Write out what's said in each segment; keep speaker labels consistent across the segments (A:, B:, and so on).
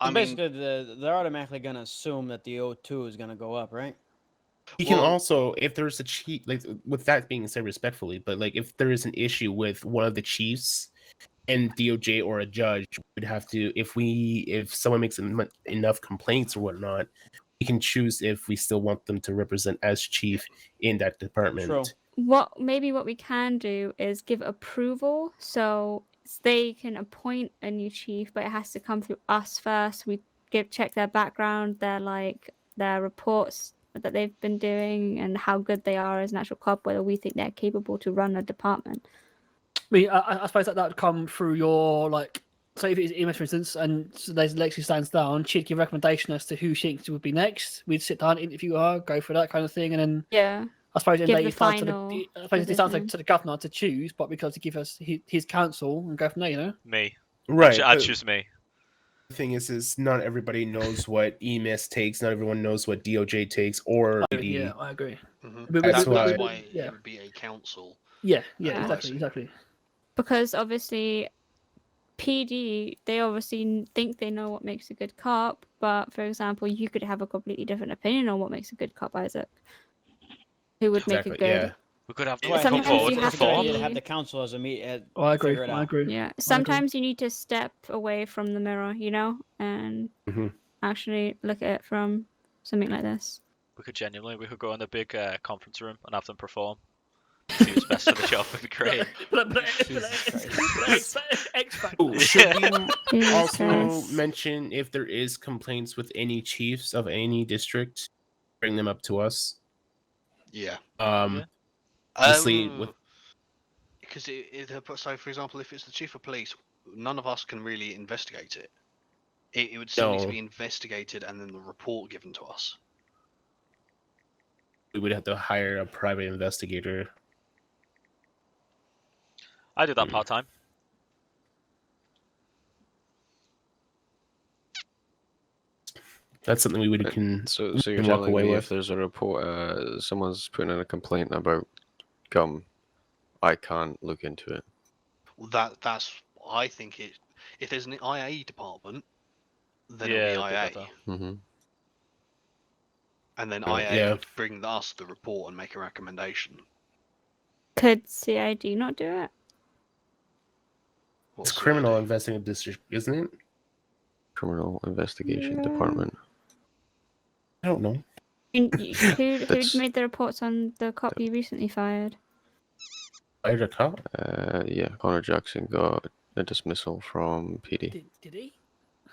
A: I
B: So
A: mean,
B: basically, the, they're automatically going to assume that the O2 is going to go up, right?
C: You can
A: Well-
C: also, if there's a chief, like with that being said respectfully, but like if there is an issue with one of the chiefs and DOJ or a judge would have to, if we, if someone makes en- enough complaints or whatnot, we can choose if we still want them to represent as chief in that department.
B: True.
D: what maybe what we can do is give approval so s- they can appoint a new chief but it has to come through us first we give check their background their like their reports that they've been doing and how good they are as an actual club whether we think they're capable to run a department
E: I mean, I- I, I suppose that that would come through your like. So if it's Emis, for instance, and so there's Lexi stands down, she'd give recommendation as to who she thinks would be next. We'd sit down, interview her, go for that kind of thing, and then
D: yeah
E: I suppose then
D: Give
E: they
D: the
E: start to
D: final
E: the, I suppose it's down to,
D: decision.
E: to the governor to choose, but because to give us his, his counsel and go from there, you know.
A: me.
C: Right.
A: I
C: but-
A: choose me.
C: The thing is, is not everybody knows what EMIS takes. Not everyone knows what DOJ takes or
E: I-
C: the-
E: yeah, I agree.
B: Mm-hmm.
F: Mhm.
E: We- we-
C: That's
F: That-
E: we-
C: why-
F: that's
E: we-
F: why
E: yeah,
F: it would be a council.
E: yeah, yeah,
D: Yeah.
E: exactly, exactly.
D: because obviously PD they obviously n- think they know what makes a good cop but for example you could have a completely different opinion on what makes a good cop Isaac who would make
C: Exactly,
D: a good
A: We could have
B: It's
A: them
D: Sometimes
A: come
B: like-
A: forward
D: you
A: and
D: have
B: it's a good
A: form.
B: idea to have the council as a uh, meet. At,
E: Oh, I agree.
B: Figure it
E: I
B: out.
D: yeah,
E: agree.
D: sometimes you need to step away from the mirror you know and
C: Mhm.
D: actually look at it from something like this
A: We could genuinely, we could go in the big uh, conference room and have them perform. See who's best for the job would be great.
E: But, but, but,
B: Jesus
E: X- X Factor.
C: Ooh, should we
D: Jesus
C: also
D: Christ.
C: mention if there is complaints with any chiefs of any district, bring them up to us.
F: Yeah.
C: Um,
A: Yeah.
C: Obviously, with-
F: because Um, it, it uh, but so for example if it's the chief of police none of us can really investigate it it, it would still need to
C: No.
F: be investigated and then the report given to us
C: we would have to hire a private investigator.
A: I do that part time.
C: That's something we would
G: Right.
C: can.
G: So, so you're
C: can walk
G: telling
C: away
G: me
C: with.
G: if there's a report, uh, someone's putting in a complaint about gum, I can't look into it.
F: Well, that that's i think it if there's an ia department then
A: Yeah,
F: it'll
A: it'll
F: be
A: be
F: ia
A: better.
C: Mm-hmm.
G: hmm
F: and then
C: Uh,
F: ia
C: yeah.
F: would bring us the report and make a recommendation
D: could CID not do it
F: What
C: It's
F: sort of
C: criminal
F: thing?
C: investigative district, isn't it?
G: Criminal investigation
D: Yeah.
G: department.
C: I don't know.
D: You- you- who
G: That's-
D: who made the reports on the cop you recently fired
C: I a cop.
G: Uh, yeah, Connor Jackson got a dismissal from PD.
E: Did, did he?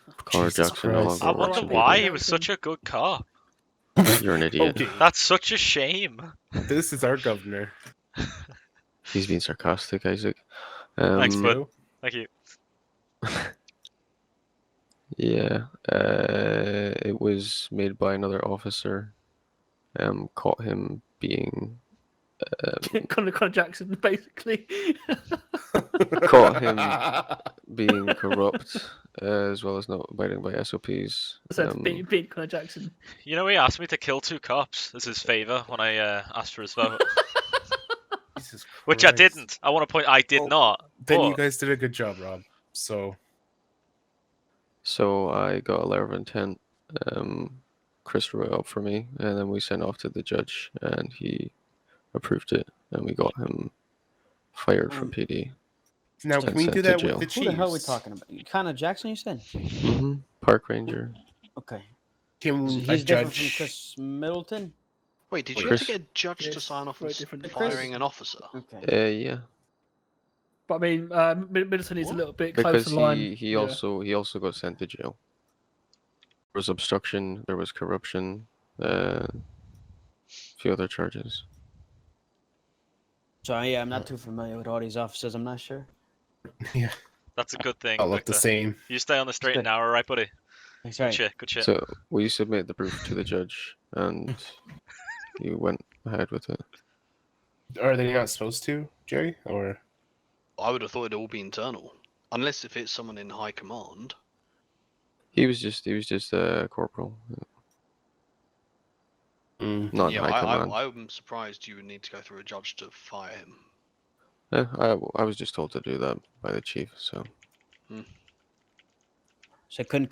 G: Connor
C: Jesus
G: Jackson
C: Christ.
G: no
A: I
G: longer works
A: wonder
G: in
E: Watson
A: why
E: Beacon.
A: he was such a good cop.
G: PD. You're an idiot.
C: Okay,
A: That's such a shame.
C: this is our governor.
G: He's being sarcastic, Isaac. Um,
A: Thanks, bud.
C: so-
A: Thank you.
G: Yeah, uh, it was made by another officer. Um, caught him being
E: Connor, Connor Jackson, basically.
G: Caught being corrupt, uh, as well as not abiding by SOPs.
E: so
G: um,
E: being, being Connor Jackson.
A: You know, he asked me to kill two cops as his favour when I uh, asked for his vote,
C: Jesus
A: which I
C: Christ.
A: didn't. I want to point, I did
F: Oh.
C: Well,
A: not.
C: Then you
A: What?
C: guys did a good job, Rob. So
G: So I got a letter of intent. Um, Chris wrote up for me, and then we sent off to the judge, and he approved it, and we got him fired from
E: Hmm.
B: Um,
G: PD.
C: now
G: Just
C: can we
G: sent
C: do
G: to
C: that with
G: jail.
C: the
B: Who
C: chiefs?
B: the hell are we talking about? Connor Jackson, you said?
G: hmm Park ranger.
B: Okay.
C: Can
B: So
C: a
B: he's different from
C: judge?
B: Chris Middleton?
F: wait did you
G: Chris-
F: have to get a judge to
E: Yes,
F: sign off on
E: very
F: s-
E: different to
B: Chris.
F: firing an officer
B: Okay.
G: Uh, yeah,
E: But I mean, uh, Mid- Middleton is a
F: What?
E: little bit close
G: because
E: to the line.
G: he, he
E: yeah.
G: also he also got sent to jail. There was obstruction. There was corruption. Uh, a few other charges.
B: So yeah, I'm not too familiar with all these officers. I'm not sure.
A: That's a good thing.
C: All look the
A: Victor.
C: same.
A: You stay on the straight and narrow, right, buddy?
B: That's
A: Good
B: right.
A: shit, good shit.
G: So we submit the proof to the judge, and he went ahead with it.
C: Are they not supposed to, Jerry? Or
F: i would have thought it'd all be internal unless if it's someone in high command
G: He was just he was just a corporal,
C: Mm,
G: not in
F: yeah,
G: high
F: I,
G: command.
F: I, I'm surprised you would need to go through a judge to fire him.
G: Yeah, Eh, I, I was just told to do that by the chief, so.
B: So couldn't